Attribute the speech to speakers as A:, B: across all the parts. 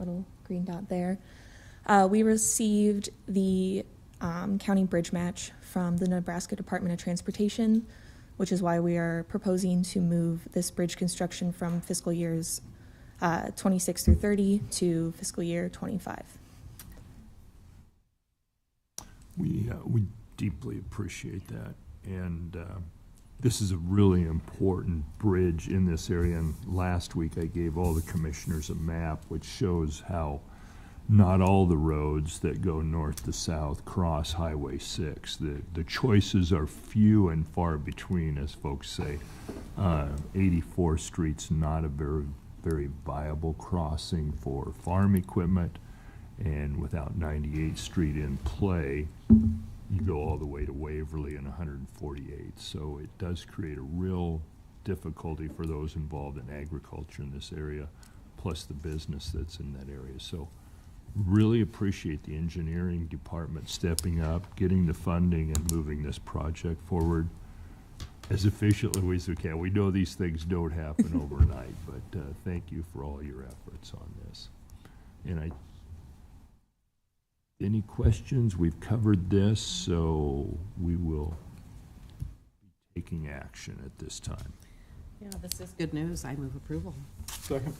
A: little green dot there. Uh, we received the um, county bridge match from the Nebraska Department of Transportation, which is why we are proposing to move this bridge construction from fiscal years uh, 26 through 30 to fiscal year 25.
B: We, uh, we deeply appreciate that, and uh, this is a really important bridge in this area. And last week, I gave all the commissioners a map which shows how not all the roads that go north to south cross Highway 6. The, the choices are few and far between, as folks say. Uh, 84 Street's not a very, very viable crossing for farm equipment, and without 98th Street in play, you go all the way to Waverly and 148. So it does create a real difficulty for those involved in agriculture in this area, plus the business that's in that area. So really appreciate the engineering department stepping up, getting the funding and moving this project forward as efficiently as we can. We know these things don't happen overnight, but uh, thank you for all your efforts on this. And I any questions? We've covered this, so we will be taking action at this time.
C: Yeah, this is good news. I move approval.
D: Second.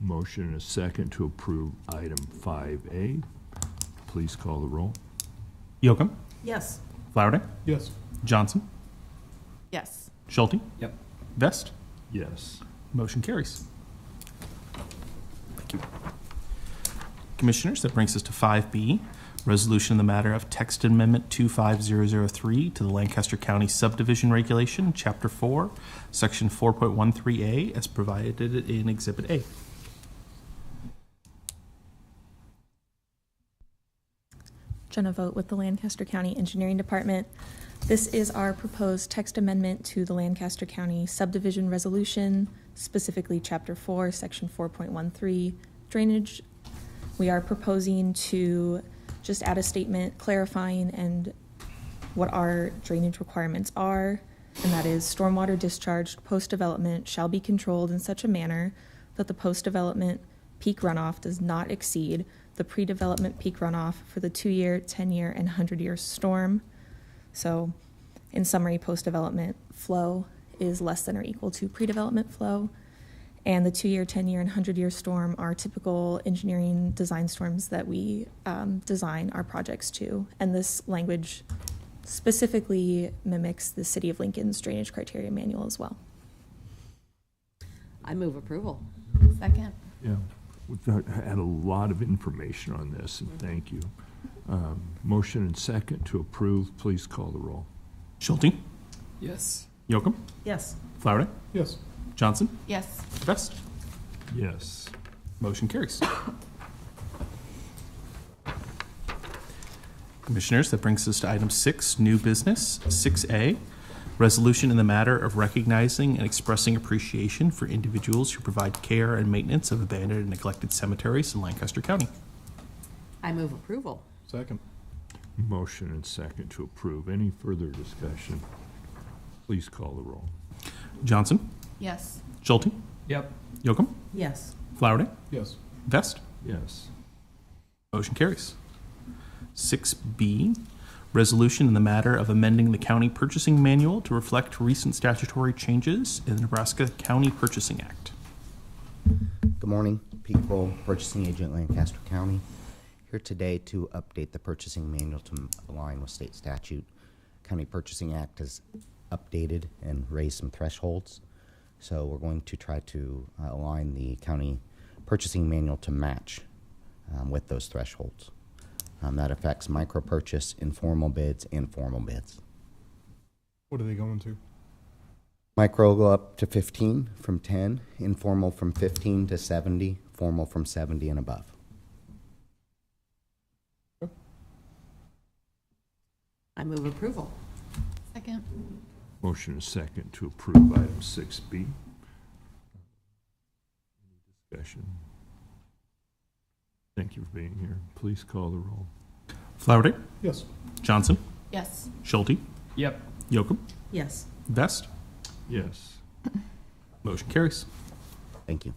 B: Motion and a second to approve item 5A. Please call the roll.
E: Yocum,
C: Yes.
E: Flowerday,
D: Yes.
E: Johnson,
C: Yes.
E: Schulte.
D: Yep.
E: Vest.
B: Yes.
E: Motion carries. Thank you. Commissioners, that brings us to 5B, resolution in the matter of text amendment 25003 to the Lancaster County Subdivision Regulation, Chapter 4, Section 4.13A, as provided in Exhibit A.
A: Jenna Vogt with the Lancaster County Engineering Department. This is our proposed text amendment to the Lancaster County subdivision resolution, specifically Chapter 4, Section 4.13, drainage. We are proposing to just add a statement clarifying and what our drainage requirements are, and that is stormwater discharged post-development shall be controlled in such a manner that the post-development peak runoff does not exceed the pre-development peak runoff for the two-year, 10-year, and 100-year storm. So in summary, post-development flow is less than or equal to pre-development flow. And the two-year, 10-year, and 100-year storm are typical engineering design storms that we um, design our projects to. And this language specifically mimics the City of Lincoln's drainage criteria manual as well.
C: I move approval. Second.
B: Yeah, we've got- had a lot of information on this, and thank you. Um, Motion and second to approve. Please call the roll.
E: Schulte,
D: Yes.
E: Yocum,
C: Yes.
E: Flowerday,
D: Yes.
E: Johnson,
C: Yes.
E: Vest.
B: Yes.
E: Motion carries. Commissioners, that brings us to item six, new business, six A, resolution in the matter of recognizing and expressing appreciation for individuals who provide care and maintenance of abandoned and neglected cemeteries in Lancaster County.
C: I move approval.
D: Second.
B: Motion and second to approve. Any further discussion? Please call the roll.
E: Johnson,
C: Yes.
E: Schulte,
D: Yep.
E: Yocum,
C: Yes.
E: Flowerday,
D: Yes.
E: Vest.
B: Yes.
E: Motion carries. Six B, resolution in the matter of amending the county purchasing manual to reflect recent statutory changes in the Nebraska County Purchasing Act.
F: Good morning, Pete Cole, Purchasing Agent, Lancaster County. Here today to update the purchasing manual to align with state statute. County Purchasing Act has updated and raised some thresholds. So we're going to try to uh, align the county purchasing manual to match um, with those thresholds. Um, That affects micro purchase, informal bids, and formal bids.
D: What are they going to?
F: Micro will go up to 15 from 10, informal from 15 to 70, formal from 70 and above.
C: I move approval. Second.
B: Motion and second to approve item 6B. Discussion. Thank you for being here. Please call the roll.
E: Flowerday,
D: Yes.
E: Johnson,
C: Yes.
E: Schulte,
D: Yep.
E: Yocum,
C: Yes.
E: Vest.
B: Yes.
E: Motion carries.
F: Thank you.